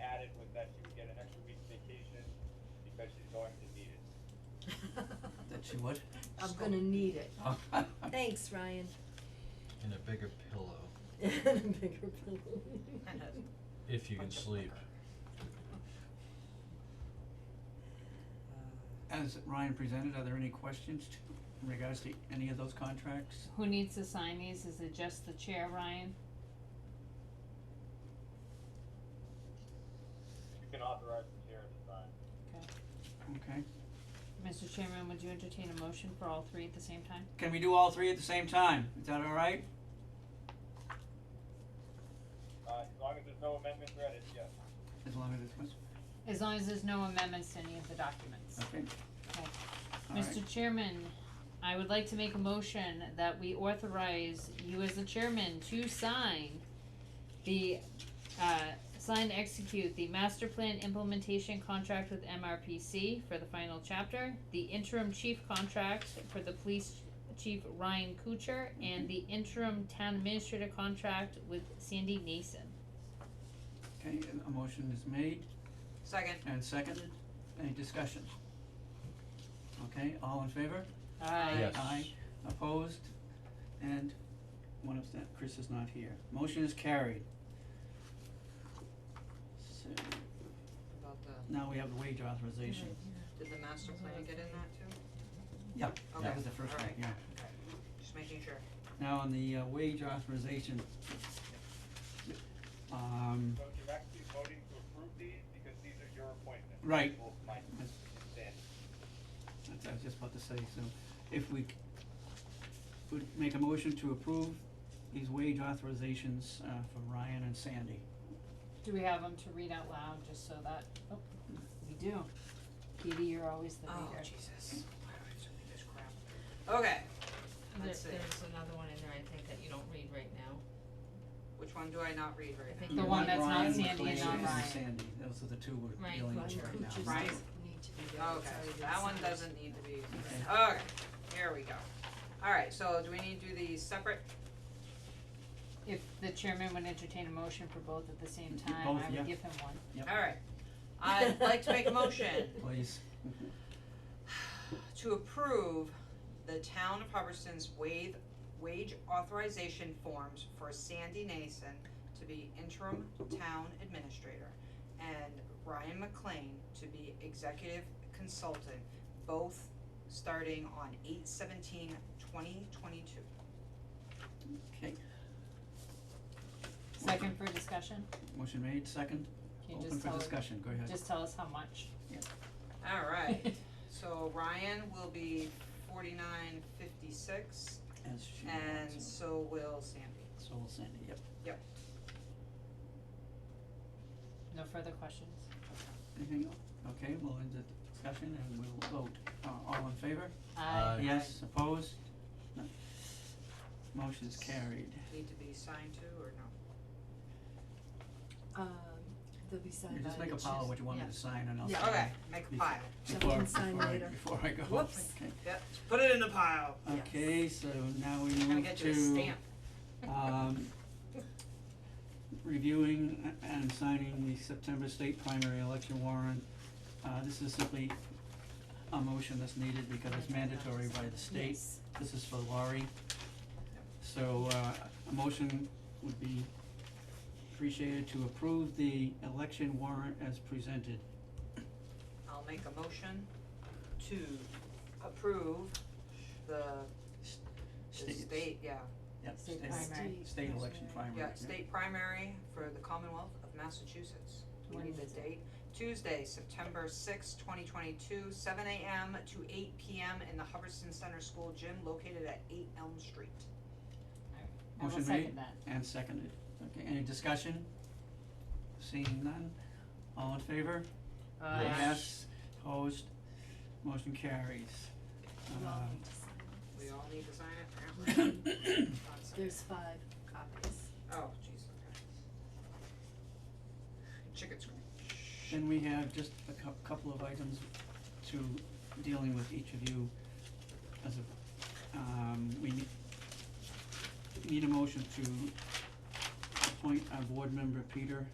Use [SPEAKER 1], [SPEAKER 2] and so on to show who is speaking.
[SPEAKER 1] that she would get an extra week's vacation because she's going to need it.
[SPEAKER 2] That she would?
[SPEAKER 3] I'm gonna need it.
[SPEAKER 2] Oh.
[SPEAKER 3] Thanks, Ryan.
[SPEAKER 4] And a bigger pillow,
[SPEAKER 3] Bigger pillow.
[SPEAKER 4] if you can sleep.
[SPEAKER 2] As Ryan presented, are there any questions to, in regards to any of those contracts?
[SPEAKER 5] Who needs to sign these? Is it just the chair, Ryan?
[SPEAKER 1] You can authorize the chair to sign.
[SPEAKER 5] Okay.
[SPEAKER 2] Okay.
[SPEAKER 5] Mr. Chairman, would you entertain a motion for all three at the same time?
[SPEAKER 2] Can we do all three at the same time? Is that all right?
[SPEAKER 1] Uh, as long as there's no amendment read, yes.
[SPEAKER 2] As long as it's,
[SPEAKER 5] As long as there's no amendments to any of the documents.
[SPEAKER 2] okay.
[SPEAKER 5] Okay.
[SPEAKER 2] All right.
[SPEAKER 5] Mr. Chairman, I would like to make a motion that we authorize you as the chairman to sign the, uh, sign to execute the master plan implementation contract with MRPC for the final chapter, the interim chief contract for the police chief Ryan Kuchar, and the interim town administrator contract with Sandy Nason.
[SPEAKER 2] Okay, a- a motion is made
[SPEAKER 6] Second.
[SPEAKER 2] and seconded. Any discussion? Okay, all in favor?
[SPEAKER 5] Aye.
[SPEAKER 4] Yes.
[SPEAKER 2] Aye, opposed, and one of that, Chris is not here. Motion is carried. So,
[SPEAKER 6] About the,
[SPEAKER 2] now we have the wage authorization.
[SPEAKER 6] did the master plan get in that too?
[SPEAKER 2] Yeah,
[SPEAKER 6] Okay,
[SPEAKER 2] that was the first one,
[SPEAKER 6] alright.
[SPEAKER 2] yeah.
[SPEAKER 6] Just making sure.
[SPEAKER 2] Now on the uh, wage authorization. Um,
[SPEAKER 1] So you're actually voting to approve these because these are your appointments.
[SPEAKER 2] Right.
[SPEAKER 1] Both mine
[SPEAKER 2] That's-
[SPEAKER 1] and Sandy's.
[SPEAKER 2] that's, I was just about to say, so if we c- would make a motion to approve these wage authorizations, uh, for Ryan and Sandy.
[SPEAKER 5] Do we have them to read out loud, just so that, oh, we do. Katie, you're always the
[SPEAKER 6] Oh,
[SPEAKER 5] reader.
[SPEAKER 6] Jesus. Why do I have so many of this crap? Okay,
[SPEAKER 7] There,
[SPEAKER 6] let's see.
[SPEAKER 7] there's another one in there, I think, that you don't read right now.
[SPEAKER 6] Which one do I not read
[SPEAKER 7] I
[SPEAKER 6] right now?
[SPEAKER 7] think
[SPEAKER 2] You
[SPEAKER 7] the
[SPEAKER 2] want
[SPEAKER 7] one that's not
[SPEAKER 2] Ryan,
[SPEAKER 5] Sandy and
[SPEAKER 2] McLean,
[SPEAKER 5] not Ryan.
[SPEAKER 2] Sandy, those are the two we're
[SPEAKER 7] Ryan
[SPEAKER 2] dealing
[SPEAKER 7] Ryan
[SPEAKER 2] with right now.
[SPEAKER 7] Kuchar's
[SPEAKER 6] Right.
[SPEAKER 7] doesn't
[SPEAKER 3] need to be
[SPEAKER 6] Okay, that one doesn't need to be, okay, here we go. Alright, so do we need to do these separate?
[SPEAKER 5] If the chairman would entertain a motion for both at the same
[SPEAKER 2] Y-
[SPEAKER 5] time,
[SPEAKER 2] both,
[SPEAKER 5] I
[SPEAKER 2] yeah.
[SPEAKER 5] would give him one.
[SPEAKER 2] Yep.
[SPEAKER 6] Alright, I'd like to make a motion
[SPEAKER 2] Please.
[SPEAKER 6] to approve the town of Hubbardston's wage, wage authorization forms for Sandy Nason to be interim town administrator and Ryan McLean to be executive consultant, both starting on eight seventeen twenty twenty-two.
[SPEAKER 2] Okay,
[SPEAKER 5] Second for discussion,
[SPEAKER 2] motion made, second,
[SPEAKER 5] can you
[SPEAKER 2] open
[SPEAKER 5] just
[SPEAKER 2] for
[SPEAKER 5] tell,
[SPEAKER 2] discussion, go ahead.
[SPEAKER 5] just tell us how much?
[SPEAKER 6] Alright, so Ryan will be forty-nine fifty-six
[SPEAKER 2] As she
[SPEAKER 6] and
[SPEAKER 2] wants
[SPEAKER 6] so will Sandy.
[SPEAKER 2] it. So will Sandy, yep.
[SPEAKER 5] No further questions?
[SPEAKER 2] Anything else? Okay, we'll end the discussion and we'll vote. Uh, all in favor?
[SPEAKER 5] Aye.
[SPEAKER 4] Aye.
[SPEAKER 2] Uh, Yes, opposed? No. Motion is carried.
[SPEAKER 6] Need to be signed to or no?
[SPEAKER 3] Um, they'll be signed
[SPEAKER 2] You
[SPEAKER 3] by
[SPEAKER 2] just make
[SPEAKER 3] the
[SPEAKER 2] a pile
[SPEAKER 3] chief-
[SPEAKER 2] of what you want me
[SPEAKER 3] yeah.
[SPEAKER 2] to sign and I'll
[SPEAKER 3] Yeah.
[SPEAKER 2] sign.
[SPEAKER 6] Okay, make a pile.
[SPEAKER 3] So we
[SPEAKER 2] Before,
[SPEAKER 3] can sign
[SPEAKER 2] before I,
[SPEAKER 3] later.
[SPEAKER 2] before I go.
[SPEAKER 6] Whoops.
[SPEAKER 2] Okay.
[SPEAKER 6] Yep, just put it in the pile.
[SPEAKER 3] Yes.
[SPEAKER 2] Okay, so now we
[SPEAKER 6] I'm gonna
[SPEAKER 2] move
[SPEAKER 6] get you a
[SPEAKER 2] Uh, to,
[SPEAKER 6] stamp.
[SPEAKER 2] um, reviewing and signing the September state primary election warrant. Uh, this is simply a motion that's needed because it's mandatory by the state.
[SPEAKER 3] Yes.
[SPEAKER 2] This is for Laurie. So, uh, a motion would be appreciated to approve the election warrant as presented.
[SPEAKER 6] I'll make a motion to approve the, the state, yeah,
[SPEAKER 2] Yep,
[SPEAKER 5] State
[SPEAKER 2] state,
[SPEAKER 5] primary.
[SPEAKER 2] state election primary.
[SPEAKER 6] yeah, state primary for the Commonwealth of Massachusetts. We need the date, Tuesday, September sixth, twenty twenty-two, seven AM to eight PM in the Hubbardston Center School Gym located at eight Elm Street.
[SPEAKER 5] I will
[SPEAKER 2] Motion made.
[SPEAKER 5] second that.
[SPEAKER 2] And seconded. Okay, any discussion? Seeing none, all in favor?
[SPEAKER 5] Aye.
[SPEAKER 2] Yes, opposed, motion carries.
[SPEAKER 3] You all
[SPEAKER 2] Um,
[SPEAKER 3] need to sign
[SPEAKER 6] We all need to sign it, apparently.
[SPEAKER 3] it. There's five copies.
[SPEAKER 6] Oh, jeez, okay. Chicken scratch.
[SPEAKER 2] Then we have just a cou- couple of items to dealing with each of you as a, um, we need, need a motion to appoint our board member Peter